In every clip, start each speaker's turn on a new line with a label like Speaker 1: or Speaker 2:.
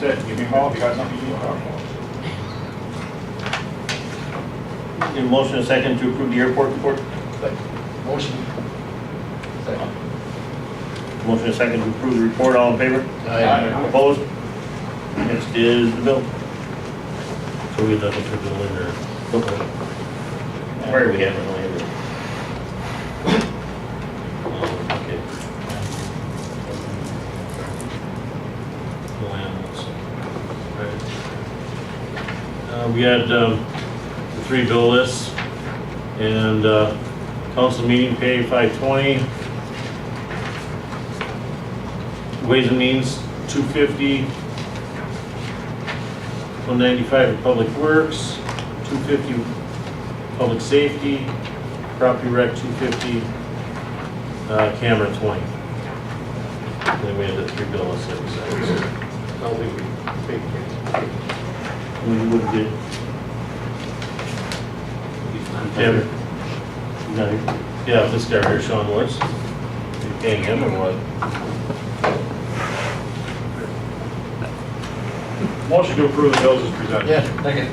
Speaker 1: that you can call, if you got something you need to talk about.
Speaker 2: Need a motion and a second to approve the airport report?
Speaker 3: Motion. Second.
Speaker 2: Motion and a second to approve the report, all in favor?
Speaker 1: Aye.
Speaker 2: Opposed? Next is the bill. So we look into bill in there. Where we have it, only ever. Oh, Okay. No animals. Right. Uh, we had, um, the three bill lists and, uh, council meeting pay five twenty, Ways and Means, two fifty. One ninety-five Public Works, two fifty Public Safety, Property Rec, two fifty, uh, Cameron, twenty. And Then we had the three bill of six.
Speaker 3: I'll leave it.
Speaker 2: We would get Cameron. No, yeah, this guy here, Sean Woods. You paying him or what?
Speaker 1: Motion to approve the bills is presented.
Speaker 3: Yeah, second.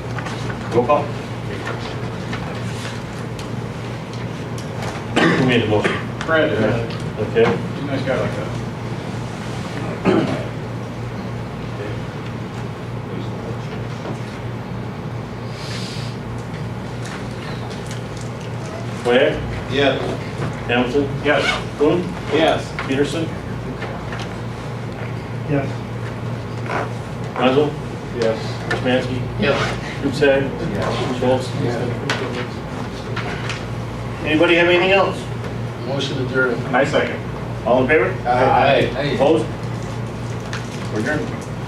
Speaker 2: Roll call. Who made the motion?
Speaker 1: Fred, uh,
Speaker 2: Okay.
Speaker 1: he's a nice guy like that.
Speaker 2: Where?
Speaker 4: Yes.
Speaker 2: Hamilton?
Speaker 1: Yes,
Speaker 2: Coon?
Speaker 4: Yes.
Speaker 2: Peterson?
Speaker 5: Yes.
Speaker 2: Mazel?
Speaker 1: yes.
Speaker 2: Kuzmansky?
Speaker 3: Yes.
Speaker 2: Kupsag? Schultz? Anybody have anything else?
Speaker 3: Motion adjourned.
Speaker 1: Nice second.
Speaker 2: All in favor?
Speaker 3: Aye.
Speaker 2: Opposed? We're adjourned.